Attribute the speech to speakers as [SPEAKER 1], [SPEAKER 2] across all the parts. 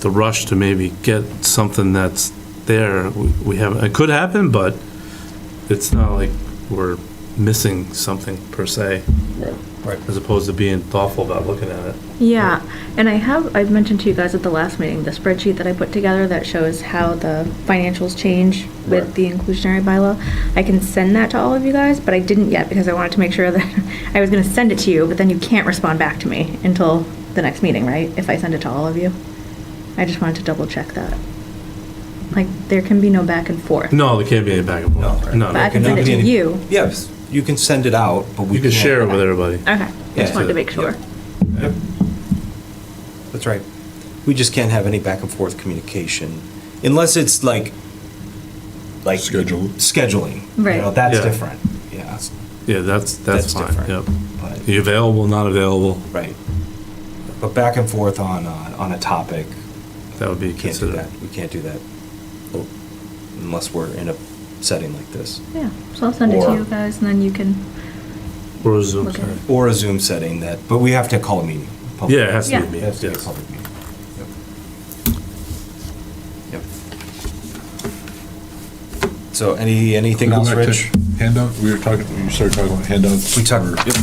[SPEAKER 1] the rush to maybe get something that's there, we we haven't, it could happen, but it's not like we're missing something per se.
[SPEAKER 2] Right.
[SPEAKER 1] As opposed to being thoughtful about looking at it.
[SPEAKER 3] Yeah, and I have, I've mentioned to you guys at the last meeting, the spreadsheet that I put together that shows how the financials change
[SPEAKER 2] Right.
[SPEAKER 3] with the inclusionary bylaw. I can send that to all of you guys, but I didn't yet because I wanted to make sure that, I was gonna send it to you, but then you can't respond back to me until the next meeting, right? If I send it to all of you. I just wanted to double check that. Like, there can be no back and forth.
[SPEAKER 1] No, there can't be any back and
[SPEAKER 2] No,
[SPEAKER 1] forth.
[SPEAKER 2] right.
[SPEAKER 1] No,
[SPEAKER 3] But I
[SPEAKER 1] no.
[SPEAKER 3] can send it to you.
[SPEAKER 2] Yes, you can send it out, but we
[SPEAKER 1] You can share it with everybody.
[SPEAKER 3] Okay,
[SPEAKER 2] Yeah,
[SPEAKER 3] just wanted
[SPEAKER 1] so-
[SPEAKER 3] to make sure.
[SPEAKER 2] Yep. That's right. We just can't have any back and forth communication unless it's like, like.
[SPEAKER 4] Scheduled.
[SPEAKER 2] Scheduling. You
[SPEAKER 3] Right.
[SPEAKER 2] know, that's
[SPEAKER 1] Yeah.
[SPEAKER 2] different, yeah.
[SPEAKER 1] Yeah, that's, that's
[SPEAKER 2] That's
[SPEAKER 1] fine,
[SPEAKER 2] different.
[SPEAKER 1] yep.
[SPEAKER 2] But-
[SPEAKER 1] You available, not available,
[SPEAKER 2] Right. But back and forth on, uh, on a topic,
[SPEAKER 1] that would be
[SPEAKER 2] we can't do
[SPEAKER 1] considered.
[SPEAKER 2] that. We can't do that Oh, unless we're in a setting like this.
[SPEAKER 3] Yeah, so I'll send it to
[SPEAKER 2] Or-
[SPEAKER 3] you guys and then you can,
[SPEAKER 1] Or Zoom,
[SPEAKER 3] Okay.
[SPEAKER 1] sorry.
[SPEAKER 2] Or a Zoom setting that, but we have to call a meeting. a public-
[SPEAKER 1] Yeah, it has to be
[SPEAKER 3] Yeah.
[SPEAKER 1] a
[SPEAKER 2] It
[SPEAKER 1] meeting,
[SPEAKER 2] has to be a
[SPEAKER 1] yes.
[SPEAKER 2] public meeting. Yep. Yep. So any, anything
[SPEAKER 4] Go
[SPEAKER 2] else,
[SPEAKER 4] back to
[SPEAKER 2] Rich?
[SPEAKER 4] Handout, we were talking, you started talking about handouts.
[SPEAKER 2] We talked,
[SPEAKER 4] or-
[SPEAKER 2] yep,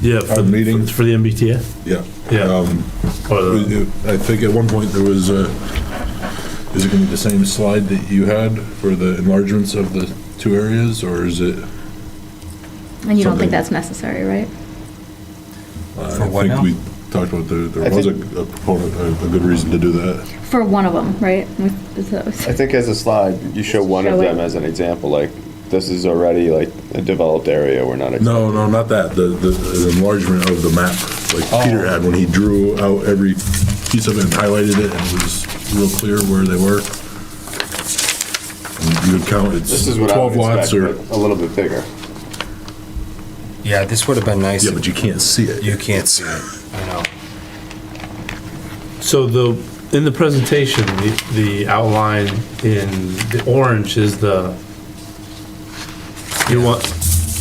[SPEAKER 1] Yeah, for,
[SPEAKER 4] Our meeting.
[SPEAKER 1] for the MBTA?
[SPEAKER 4] Yeah.
[SPEAKER 1] Yeah.
[SPEAKER 4] Um,
[SPEAKER 1] Or the-
[SPEAKER 4] we- I think at one point there was a, is it gonna be the same slide that you had for the enlargements of the two areas, or is it?
[SPEAKER 3] and you don't think
[SPEAKER 4] Something.
[SPEAKER 3] that's necessary, right?
[SPEAKER 2] For what now?
[SPEAKER 4] uh, I think we talked about there,
[SPEAKER 5] I
[SPEAKER 4] there was a
[SPEAKER 5] think-
[SPEAKER 4] a proponent, a a good reason to do that.
[SPEAKER 3] For one of them, right? With- is that-
[SPEAKER 5] I think as a slide, you show one of
[SPEAKER 3] Show it.
[SPEAKER 5] them as an example, like, this is already like a developed area, we're not.
[SPEAKER 4] No, no, not that, the, the- the enlargement of the map,
[SPEAKER 1] Oh.
[SPEAKER 4] like Peter had, when he drew out every piece of it and highlighted it, and it was real clear where they were. And You would count, it's
[SPEAKER 5] This is what I
[SPEAKER 4] twelve
[SPEAKER 5] would
[SPEAKER 4] lots
[SPEAKER 5] expect,
[SPEAKER 4] or,
[SPEAKER 5] but a little bit bigger.
[SPEAKER 2] yeah, this would have been nice.
[SPEAKER 4] yeah,
[SPEAKER 2] if
[SPEAKER 4] but you can't see it.
[SPEAKER 2] You can't see it, I know.
[SPEAKER 1] So the, in the presentation, the, the outline in the orange is the, you want,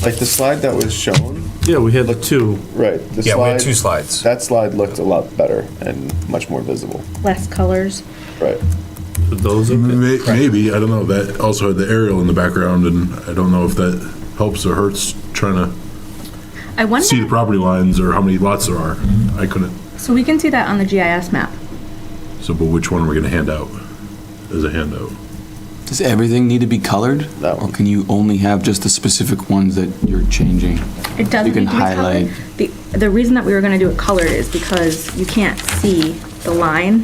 [SPEAKER 5] Like the slide that was shown,
[SPEAKER 1] yeah, we had the two,
[SPEAKER 5] right, the
[SPEAKER 2] Yeah, we had two
[SPEAKER 5] slide,
[SPEAKER 2] slides.
[SPEAKER 5] that slide looked a lot better and much more visible,
[SPEAKER 3] Less colors.
[SPEAKER 5] right?
[SPEAKER 1] those are,
[SPEAKER 4] May- Maybe, I don't know, that also had the aerial in the background, and I don't know if that helps or hurts trying
[SPEAKER 3] I
[SPEAKER 4] to
[SPEAKER 3] wonder,
[SPEAKER 4] see the property lines or how many lots there are. I couldn't,
[SPEAKER 3] so we can see that on the GIS map.
[SPEAKER 4] so, but which one are we gonna hand out as a handout?
[SPEAKER 6] Does everything need to be colored?
[SPEAKER 5] No.
[SPEAKER 6] Or can you only have just the specific ones that you're changing?
[SPEAKER 3] It doesn't
[SPEAKER 6] You
[SPEAKER 3] need
[SPEAKER 6] can
[SPEAKER 3] to be colored.
[SPEAKER 6] highlight.
[SPEAKER 3] The, the reason that we were gonna do it colored is because you can't see the line.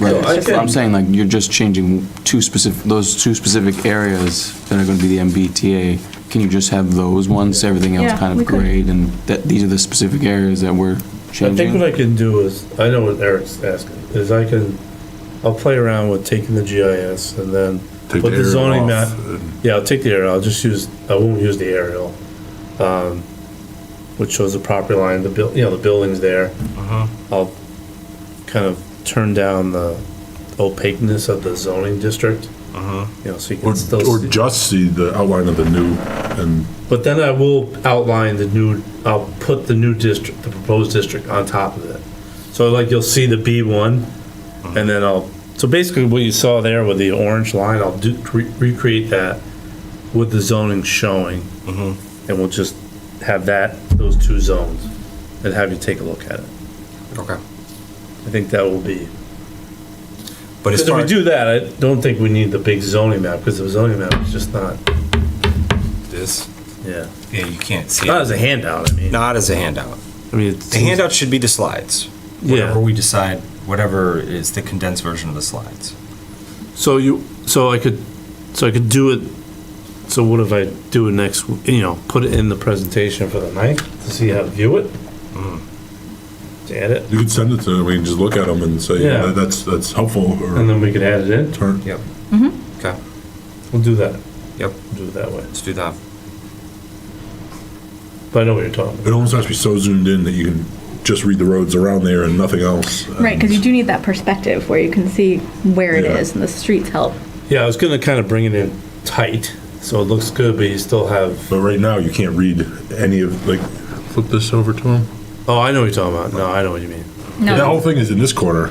[SPEAKER 6] Right.
[SPEAKER 3] I
[SPEAKER 6] That's what I'm saying, like, you're just changing two specific, those two specific areas that are gonna be the MBTA. Can you just have those ones, everything else
[SPEAKER 3] Yeah,
[SPEAKER 6] kind
[SPEAKER 3] we
[SPEAKER 6] of
[SPEAKER 3] could.
[SPEAKER 6] grayed, and that, these are the specific areas that we're
[SPEAKER 1] I think what
[SPEAKER 6] changing?
[SPEAKER 1] I can do is, I know what Eric's asking, is I can, I'll play around with taking the GIS and then
[SPEAKER 4] Take
[SPEAKER 1] But the
[SPEAKER 4] aerial
[SPEAKER 1] zoning
[SPEAKER 4] off
[SPEAKER 1] map-
[SPEAKER 4] and-
[SPEAKER 1] Yeah, I'll take the aerial, I'll just use, I won't use the aerial, um, which shows the property line, the buil, you know, the building's there. I'll kind of turn down the opaqueness of the zoning district. You know, so you
[SPEAKER 4] Or,
[SPEAKER 1] can still,
[SPEAKER 4] or
[SPEAKER 1] see-
[SPEAKER 4] just see the outline of the new, and
[SPEAKER 1] but then I will outline the new, I'll put the new district, the proposed district on top of it. So like you'll see the B one, and then I'll, so basically what you saw there with the orange line, I'll do, re- recreate that with the zoning showing.
[SPEAKER 2] Mm-hmm.
[SPEAKER 1] And we'll just have that, those two zones, and have you take a look at it.
[SPEAKER 2] Okay.
[SPEAKER 1] I think that will be,
[SPEAKER 2] But as
[SPEAKER 1] because if
[SPEAKER 2] far,
[SPEAKER 1] we do that, I don't think we need the big zoning map, because the zoning map is just not,
[SPEAKER 2] this,
[SPEAKER 1] yeah,
[SPEAKER 2] yeah, you can't see
[SPEAKER 1] not
[SPEAKER 2] it.
[SPEAKER 1] as a handout, I mean.
[SPEAKER 2] Not as a handout.
[SPEAKER 1] I mean, it's.
[SPEAKER 2] The handout should be the slides.
[SPEAKER 1] Yeah.
[SPEAKER 2] Whatever we decide, whatever is the condensed version of the slides.
[SPEAKER 1] So you, so I could, so I could do it, so what if I do it next, w- you know, put it in the presentation for the ninth to see how to view it? Mm. To add it,
[SPEAKER 4] you could send it to them, we can just look at them and say,
[SPEAKER 1] Yeah.
[SPEAKER 4] yeah, that's, that's helpful,
[SPEAKER 1] and
[SPEAKER 4] or
[SPEAKER 1] then we could add it in,
[SPEAKER 4] turn,
[SPEAKER 2] Yep. Okay,
[SPEAKER 1] we'll do that,
[SPEAKER 2] yep,
[SPEAKER 1] We'll do it that way,
[SPEAKER 2] let's do that.
[SPEAKER 1] but I know what you're talking about.
[SPEAKER 4] it almost has to be so zoomed in that you can just read the roads around there and nothing else.
[SPEAKER 3] Right, because you do need that perspective where you can see where it
[SPEAKER 4] Yeah.
[SPEAKER 3] is and the streets help.
[SPEAKER 1] Yeah, I was gonna kind of bring it in tight, so it looks good, but you still have,
[SPEAKER 4] But right now, you can't read any of, like, flip this over to him.
[SPEAKER 1] oh, I know what you're talking about, no, I know what you mean.
[SPEAKER 4] That whole thing is in this corner.